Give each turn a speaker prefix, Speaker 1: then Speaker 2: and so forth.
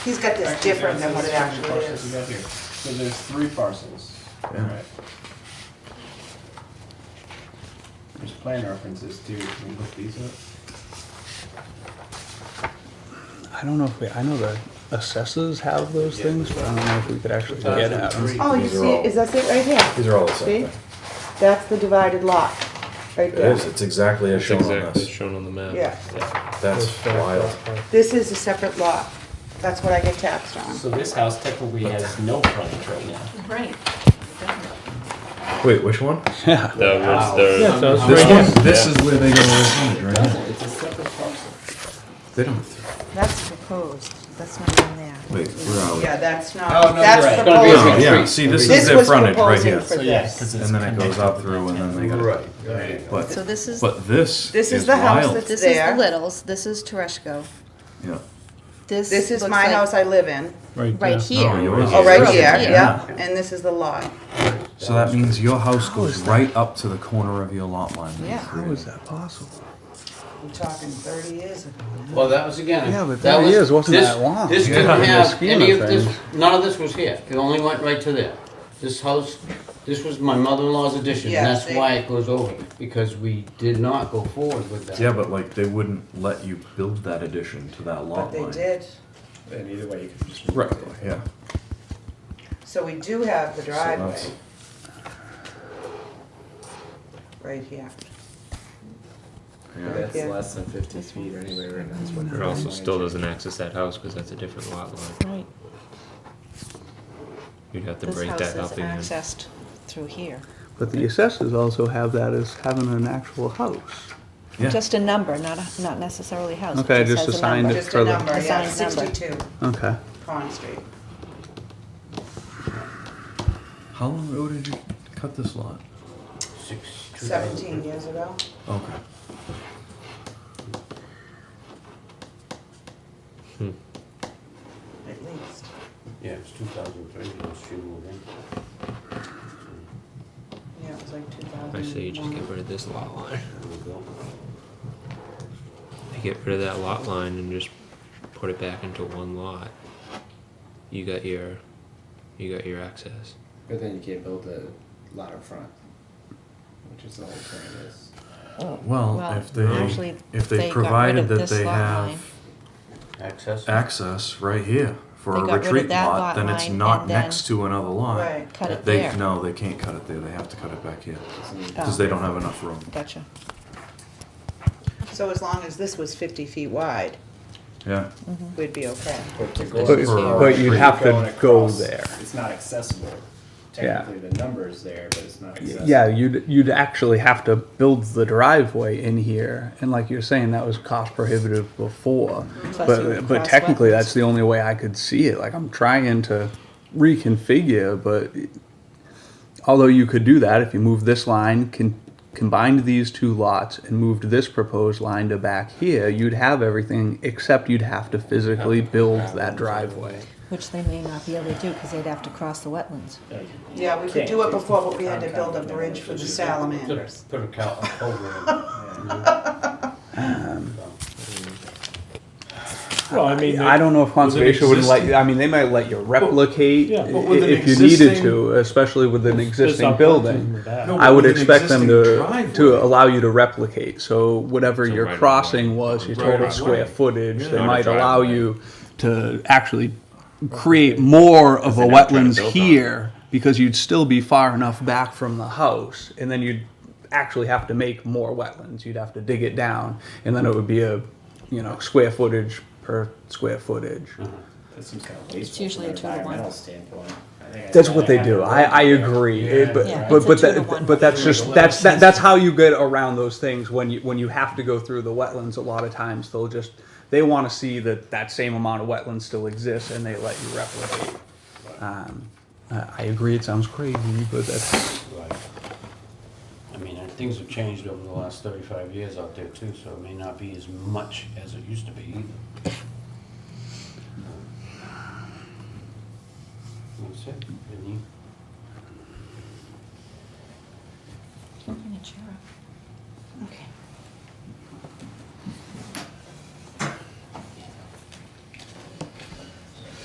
Speaker 1: He's got this
Speaker 2: Actually,
Speaker 1: different than what it
Speaker 2: that's the
Speaker 1: actually
Speaker 2: parcels we
Speaker 1: is.
Speaker 2: got here. So there's three parcels.
Speaker 3: Yeah.
Speaker 2: Alright. There's plan references too, can we look these up?
Speaker 4: I don't know if we, I know the assessors have those things, but I don't know if we could actually get at them.
Speaker 5: Oh, you
Speaker 3: These are
Speaker 5: see,
Speaker 3: all-
Speaker 5: is that it right here?
Speaker 3: These are all the same
Speaker 5: See?
Speaker 3: thing.
Speaker 5: That's the divided lot, right
Speaker 3: It
Speaker 5: there.
Speaker 3: is, it's exactly as
Speaker 6: It's
Speaker 3: shown on
Speaker 6: exactly
Speaker 3: this.
Speaker 6: shown on the map.
Speaker 5: Yeah.
Speaker 3: That's wild.
Speaker 5: This is a separate lot. That's what I get taxed on.
Speaker 7: So this house technically has no frontage right now.
Speaker 8: Right.
Speaker 3: Wait, which one?
Speaker 4: Yeah.
Speaker 6: That was the.
Speaker 4: So it's
Speaker 3: This
Speaker 4: right here.
Speaker 3: one, this is where they go to the frontage, right? here.
Speaker 7: It's a separate parcel.
Speaker 3: They don't,
Speaker 5: That's proposed. That's not on there.
Speaker 3: wait, where are we?
Speaker 1: Yeah, that's
Speaker 2: Oh, no,
Speaker 1: not,
Speaker 2: you're right.
Speaker 1: that's
Speaker 2: It's
Speaker 7: gonna be a
Speaker 3: Oh,
Speaker 1: proposed.
Speaker 7: big-
Speaker 3: yeah, see, this is
Speaker 5: This
Speaker 3: their
Speaker 5: was
Speaker 3: frontage right
Speaker 5: proposing
Speaker 3: here.
Speaker 5: for
Speaker 7: So yeah,
Speaker 5: this.
Speaker 7: 'cause it's
Speaker 3: And then it goes
Speaker 7: connected
Speaker 3: up
Speaker 7: with
Speaker 3: through and then they
Speaker 7: that
Speaker 3: gotta,
Speaker 2: right.
Speaker 8: So
Speaker 3: but,
Speaker 8: this is,
Speaker 3: but this
Speaker 5: This is
Speaker 3: is
Speaker 5: the house
Speaker 3: wild.
Speaker 5: that's-
Speaker 8: this is
Speaker 5: there.
Speaker 8: the Littles, this is Tereshko.
Speaker 3: Yeah.
Speaker 8: This
Speaker 5: This is
Speaker 8: looks
Speaker 5: my
Speaker 8: like-
Speaker 5: house I live in.
Speaker 8: Right here.
Speaker 3: Oh, yours
Speaker 5: Oh,
Speaker 3: is
Speaker 5: right
Speaker 3: this.
Speaker 5: here,
Speaker 8: Yeah.
Speaker 5: yeah. And this is the lot.
Speaker 3: So that means your house goes right up to the corner of your lot line. that you
Speaker 5: Yeah.
Speaker 4: How
Speaker 3: created.
Speaker 4: is that possible?
Speaker 1: We're talking thirty years ago.
Speaker 9: Well, that was again.
Speaker 4: Yeah, but
Speaker 9: that
Speaker 4: that
Speaker 9: was-
Speaker 4: is, wasn't
Speaker 9: this-
Speaker 4: that long?
Speaker 9: This
Speaker 4: Yeah.
Speaker 9: didn't
Speaker 4: In the
Speaker 9: have
Speaker 4: scheme
Speaker 9: any of
Speaker 4: of
Speaker 9: this,
Speaker 4: things.
Speaker 9: none of this was here. It only went right to there. This house, this was my mother-in-law's addition, and
Speaker 1: Yeah,
Speaker 9: that's
Speaker 1: they-
Speaker 9: why it goes over, because we did not go forward with that.
Speaker 3: Yeah, but like they wouldn't let you build that addition to that
Speaker 1: But
Speaker 3: lot
Speaker 1: they
Speaker 3: line.
Speaker 1: did,
Speaker 2: And either way, you can just. move
Speaker 3: Right,
Speaker 2: it.
Speaker 3: yeah.
Speaker 1: so we do have the
Speaker 3: So that's-
Speaker 1: driveway right here.
Speaker 3: Yeah.
Speaker 1: Yeah.
Speaker 2: That's less than fifty feet anyway, right now. That's what
Speaker 6: It
Speaker 2: they're
Speaker 6: also
Speaker 2: doing.
Speaker 6: still doesn't access that house because that's a different lot line.
Speaker 8: Right,
Speaker 6: You'd have to
Speaker 8: this
Speaker 6: break
Speaker 8: house
Speaker 6: that
Speaker 8: is
Speaker 6: up again.
Speaker 8: accessed through here.
Speaker 4: But the assessors also have that as having an actual house.
Speaker 3: Yeah.
Speaker 8: Just a number, not, a- not necessarily a house. it
Speaker 4: Okay, just
Speaker 8: has a
Speaker 4: assigned
Speaker 8: number.
Speaker 4: it
Speaker 1: Just a
Speaker 4: for the-
Speaker 1: number, yeah,
Speaker 8: Assigned number.
Speaker 1: sixty-two
Speaker 4: Okay.
Speaker 1: Pond Street.
Speaker 3: How long ago did you cut this lot?
Speaker 9: Six, two thousand.
Speaker 1: Seventeen years ago.
Speaker 3: Okay.
Speaker 1: at least.
Speaker 9: Yeah, it was two thousand three, when she moved in.
Speaker 1: Yeah, it was like two thousand.
Speaker 6: I say you just get rid of this lot line.
Speaker 9: There we go.
Speaker 6: You get rid of that lot line and just put it back into one lot. You got your, you got your access.
Speaker 2: But then you can't build a lot up front, which is the whole point of this.
Speaker 3: Well,
Speaker 8: Well,
Speaker 3: if they,
Speaker 8: actually,
Speaker 3: if
Speaker 8: they got
Speaker 3: they
Speaker 8: rid
Speaker 3: provided
Speaker 8: of
Speaker 3: that
Speaker 8: this
Speaker 3: they
Speaker 8: lot
Speaker 3: have
Speaker 8: line.
Speaker 9: Access.
Speaker 3: access right here for a
Speaker 8: They got rid of
Speaker 3: retreat
Speaker 8: that
Speaker 3: lot,
Speaker 8: lot
Speaker 3: then it's
Speaker 8: line
Speaker 3: not
Speaker 8: and then-
Speaker 3: next to another lot.
Speaker 1: Right.
Speaker 8: Cut it
Speaker 3: They,
Speaker 8: there.
Speaker 3: no, they can't cut it there, they have to cut it back here,
Speaker 8: Oh,
Speaker 3: cause they don't have enough room.
Speaker 8: Gotcha.
Speaker 1: So as long as this was fifty feet wide,
Speaker 3: Yeah,
Speaker 1: we'd be okay.
Speaker 8: Mm-hmm.
Speaker 2: But to go
Speaker 4: But,
Speaker 3: For-
Speaker 4: but you'd have
Speaker 2: going
Speaker 4: to go
Speaker 2: across,
Speaker 4: there.
Speaker 2: It's not accessible. Technically, the number's there, but it's not accessible.
Speaker 4: Yeah, you'd, you'd actually have to build the driveway in here, and like you're saying, that was cost prohibitive before.
Speaker 8: Plus you would
Speaker 4: But, but
Speaker 8: cross
Speaker 4: technically,
Speaker 8: wetlands.
Speaker 4: that's the only way I could see it, like, I'm trying to reconfigure, but although you could do that, if you move this line, con- combined these two lots and moved this proposed line to back here, you'd have everything, except you'd have to physically build that driveway.
Speaker 8: Which they may not be able to do, because they'd have to cross the wetlands.
Speaker 1: Yeah, we could do it before, but we had to build a bridge for the
Speaker 9: Put a,
Speaker 1: salamanders.
Speaker 9: put a cow, a
Speaker 10: Well, I mean,
Speaker 4: I don't know if conservation would let,
Speaker 3: existing-
Speaker 4: I mean, they might let you replicate
Speaker 10: Yeah,
Speaker 4: i-
Speaker 10: but with an
Speaker 4: if you needed
Speaker 10: existing-
Speaker 4: to, especially with an
Speaker 10: there's
Speaker 4: existing
Speaker 10: not
Speaker 4: building.
Speaker 10: that.
Speaker 3: No,
Speaker 4: I would
Speaker 3: with an
Speaker 4: expect them to,
Speaker 3: existing driveway.
Speaker 4: to allow you to replicate, so whatever
Speaker 6: So
Speaker 4: your
Speaker 6: right
Speaker 4: crossing
Speaker 6: away.
Speaker 4: was, your
Speaker 6: Right
Speaker 4: total
Speaker 6: away.
Speaker 4: square footage, they
Speaker 6: Not a
Speaker 4: might allow
Speaker 6: driveway.
Speaker 4: you to actually create more of a
Speaker 6: They're not trying to
Speaker 4: wetlands
Speaker 6: build on it.
Speaker 4: here, because you'd still be far enough back from the house, and then you'd actually have to make more wetlands, you'd have to dig it down, and then it would be a, you know, square footage per square footage.
Speaker 6: Uh-huh.
Speaker 2: That seems kind of wasteful.
Speaker 8: It's usually
Speaker 2: from an
Speaker 8: a two to one.
Speaker 2: environmental standpoint. I think
Speaker 4: That's
Speaker 2: I-
Speaker 4: what they do. I, I agree. It- but
Speaker 8: Yeah,
Speaker 4: but,
Speaker 8: it's a
Speaker 4: but,
Speaker 8: two to
Speaker 4: that,
Speaker 8: one.
Speaker 4: but that's just that's that, that's how you get around those things when you when you have to go through the wetlands. A lot of times they'll just they want to see that that same amount of wetlands still exists and they let you replicate. Um, I I agree. It sounds crazy, but that's
Speaker 9: Right. I mean, uh, things have changed over the last thirty-five years out there too, so it may not be as much as it used to be either. That's it, Any-
Speaker 8: Okay.